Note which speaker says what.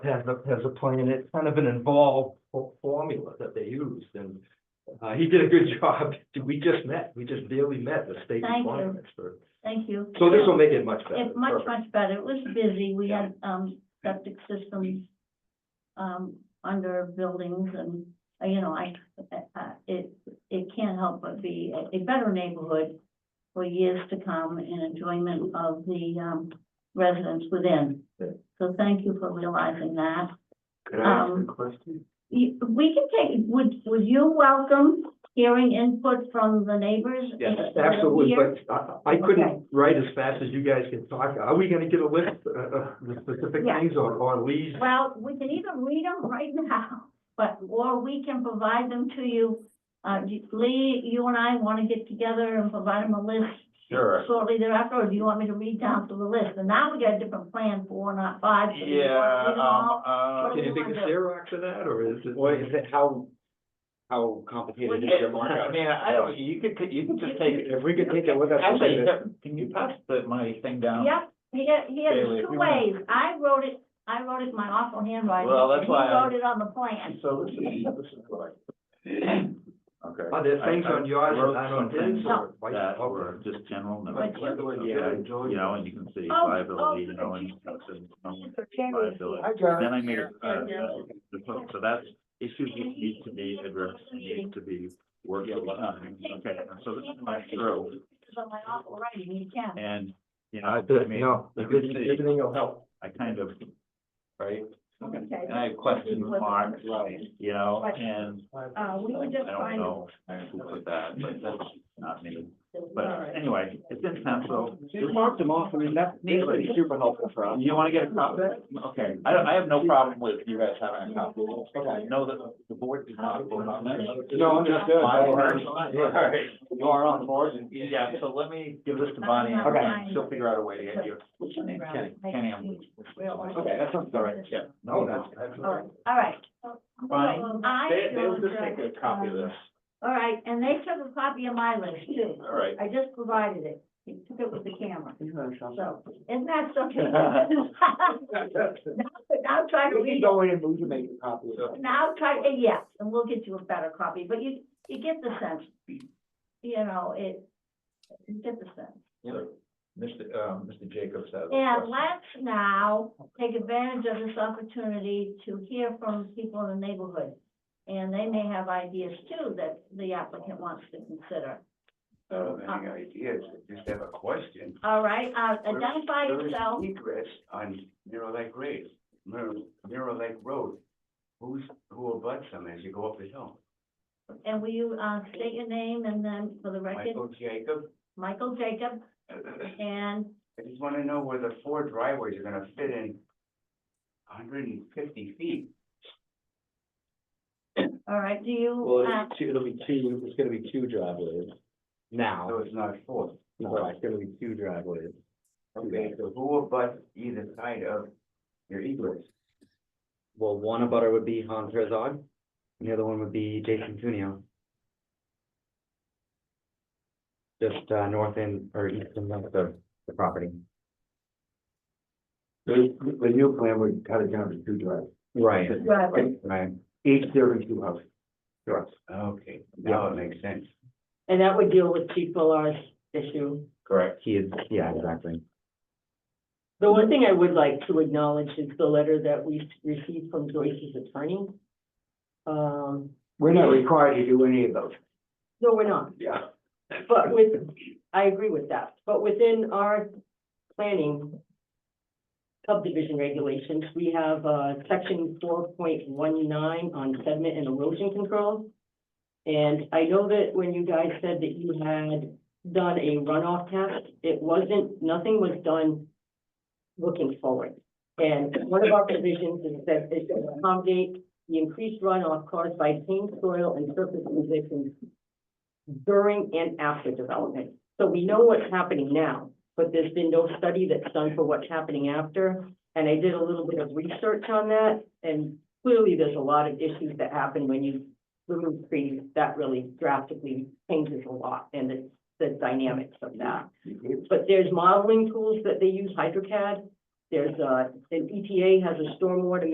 Speaker 1: has a, has a plan, it's kind of an involved fo- formula that they used, and uh, he did a good job, we just met, we just barely met the state
Speaker 2: Thank you.
Speaker 1: requirements for,
Speaker 2: Thank you.
Speaker 1: so this will make it much better.
Speaker 2: It's much,
Speaker 1: Perfect.
Speaker 2: much better. It was busy. We had, um, septic systems, um, under buildings and, uh, you know, I, uh, it, it can't help but be a, a better neighborhood for years to come and enjoyment of the, um, residents within.
Speaker 1: Good.
Speaker 2: So thank you for realizing that.
Speaker 3: Could I ask a
Speaker 2: Um,
Speaker 3: question?
Speaker 2: You- We can take, would, would you welcome hearing input from the neighbors?
Speaker 1: Yes,
Speaker 2: that live
Speaker 1: absolutely,
Speaker 2: here?
Speaker 1: but I, I
Speaker 2: Okay.
Speaker 1: couldn't write as fast as you guys can talk. Are we gonna get a list uh, of the specific
Speaker 2: Yeah.
Speaker 1: things or, or leads?
Speaker 2: Well, we can either read them right now, but, or we can provide them to you. Uh, do- Lee, you and I want to get together and provide them a list
Speaker 3: Sure.
Speaker 2: shortly thereafter, or do you want me to read down through the list? And now we got a different plan, four, not five. so do you
Speaker 3: Yeah,
Speaker 2: wanna read them all?
Speaker 3: um, uh,
Speaker 2: What do
Speaker 1: Can
Speaker 2: we
Speaker 1: you think of
Speaker 2: wanna do?
Speaker 1: Xerox of that, or is it?
Speaker 4: Well, is it, how, how complicated is
Speaker 3: it-
Speaker 4: your
Speaker 3: I
Speaker 4: markup?
Speaker 3: mean, I don't, you could, take- you could just take it.
Speaker 4: If we could take it with us, we'll
Speaker 3: Actually,
Speaker 4: leave it.
Speaker 3: can you pass the, my thing down?
Speaker 2: Yep, he had, he had
Speaker 3: Bailey, if
Speaker 2: two
Speaker 3: you wanna-
Speaker 2: ways. I wrote it, I wrote it in my awful handwriting.
Speaker 3: Well, that's
Speaker 2: and he
Speaker 3: why I-
Speaker 2: wrote it on the plan.
Speaker 3: So this is, this is what I. Okay.
Speaker 1: Are there things on yours
Speaker 3: wrote
Speaker 1: and not on
Speaker 3: some things
Speaker 1: his or vice
Speaker 3: That
Speaker 1: versa?
Speaker 3: were just general
Speaker 2: But you-
Speaker 3: numbers, yeah, you know, and you can see
Speaker 2: Oh,
Speaker 3: liability,
Speaker 2: oh,
Speaker 3: you know, and.
Speaker 2: geez.
Speaker 3: stuff, and, um,
Speaker 2: Mr. Cherry is here.
Speaker 3: liability.
Speaker 4: I got
Speaker 3: Then I made, it, uh,
Speaker 2: Yeah.
Speaker 3: uh, the- so that's issues that need to be addressed, need to be worked on, okay, so this is my throw,
Speaker 2: It's on my awful writing, you can.
Speaker 3: and, you know,
Speaker 1: Uh,
Speaker 3: I
Speaker 1: the-
Speaker 3: mean,
Speaker 1: No,
Speaker 3: you
Speaker 1: everything,
Speaker 3: can see-
Speaker 1: everything will help.
Speaker 3: I kind of, right?
Speaker 2: Okay.
Speaker 3: And I have question mark, you know,
Speaker 2: Right.
Speaker 3: and
Speaker 2: Uh, we were just
Speaker 3: I don't
Speaker 2: trying to-
Speaker 3: know who put that, but that's not me.
Speaker 2: All
Speaker 3: But
Speaker 2: right.
Speaker 3: anyway, it's in pencil.
Speaker 4: You marked them off, I mean, that's, that's
Speaker 3: Neatly.
Speaker 4: super helpful for us.
Speaker 3: You wanna get a copy? Okay, I don't, I have no problem with you guys having a copy. I know that the board did not vote on that.
Speaker 4: No, understood.
Speaker 3: My word.
Speaker 4: Alright. You are on board and.
Speaker 3: Yeah, so let me give this to Bonnie and
Speaker 2: Okay.
Speaker 3: she'll figure out a way to get you.
Speaker 2: What's your name?
Speaker 3: Kenny, Kenny, I'm.
Speaker 4: Okay, that sounds all right,
Speaker 3: yeah.
Speaker 1: No, that's, that's.
Speaker 2: All right, all right.
Speaker 3: Fine.
Speaker 2: I
Speaker 3: They, they'll
Speaker 2: showed
Speaker 3: just
Speaker 2: her,
Speaker 3: take a copy of
Speaker 2: um,
Speaker 3: this,
Speaker 2: All right, and they took a copy of my list too.
Speaker 3: all right.
Speaker 2: I just provided it. He took it with the camera, so, isn't that something? Now try to read,
Speaker 4: go in and move to make a copy of
Speaker 2: now try, eh, yeah, and we'll get you a better copy, but you, you get the sense. You know, it, you get the sense.
Speaker 3: Mr. Um, Mr. Jacobs has. a
Speaker 2: And
Speaker 3: question.
Speaker 2: let's now take advantage of this opportunity to hear from people in the neighborhood. And they may have ideas too that the applicant wants to consider.
Speaker 5: So any ideas, I just have a question.
Speaker 2: All right, uh, identify
Speaker 5: There is
Speaker 2: yourself.
Speaker 5: Egress on Mirror Lake Race, Mirror, Mirror Lake Road. Who's, who abuts them as you go up the hill?
Speaker 2: And will you, uh, state your name and then for the record,
Speaker 5: Michael Jacob,
Speaker 2: Michael Jacob,
Speaker 5: I
Speaker 2: and,
Speaker 5: just wanna know where the four driveways are gonna fit in hundred and fifty feet.
Speaker 2: all right, do you,
Speaker 4: Well,
Speaker 2: uh,
Speaker 4: it's two, it'll be two, it's gonna be two driveways.
Speaker 5: So
Speaker 4: Now,
Speaker 5: it's not four.
Speaker 4: no, it's gonna be two driveways.
Speaker 5: Okay, so who abuts either side of your egress?
Speaker 6: Well, one abutter would be Hans Herzog, and the other one would be Jason Cuneo. Just, uh, north end or east and west of the property.
Speaker 5: The, the new plan would cut it down to two drives,
Speaker 6: Right.
Speaker 2: right,
Speaker 6: Right,
Speaker 5: each serving two houses.
Speaker 6: sure.
Speaker 5: Okay, now it makes sense.
Speaker 7: And that would deal with Chief Millar's issue.
Speaker 3: Correct.
Speaker 6: He is, yeah, exactly.
Speaker 7: The one thing I would like to acknowledge is the letter that we received from Joyce's attorney. Um,
Speaker 4: We're not required to do any of those.
Speaker 7: no, we're not,
Speaker 4: Yeah.
Speaker 7: but with, I agree with that, but within our planning subdivision regulations, we have, uh, section four point one nine on sediment and erosion control. And I know that when you guys said that you had done a runoff test, it wasn't, nothing was done looking forward. And one of our provisions is that it should accommodate the increased runoff caused by changed soil and surface conditions during and after development. So we know what's happening now, but there's been no study that's done for what's happening after. And I did a little bit of research on that, and clearly there's a lot of issues that happen when you remove trees. That really drastically changes a lot and the, the dynamics of that. But there's modeling tools that they use, HydroCAD. There's, uh, an EPA has E a stormwater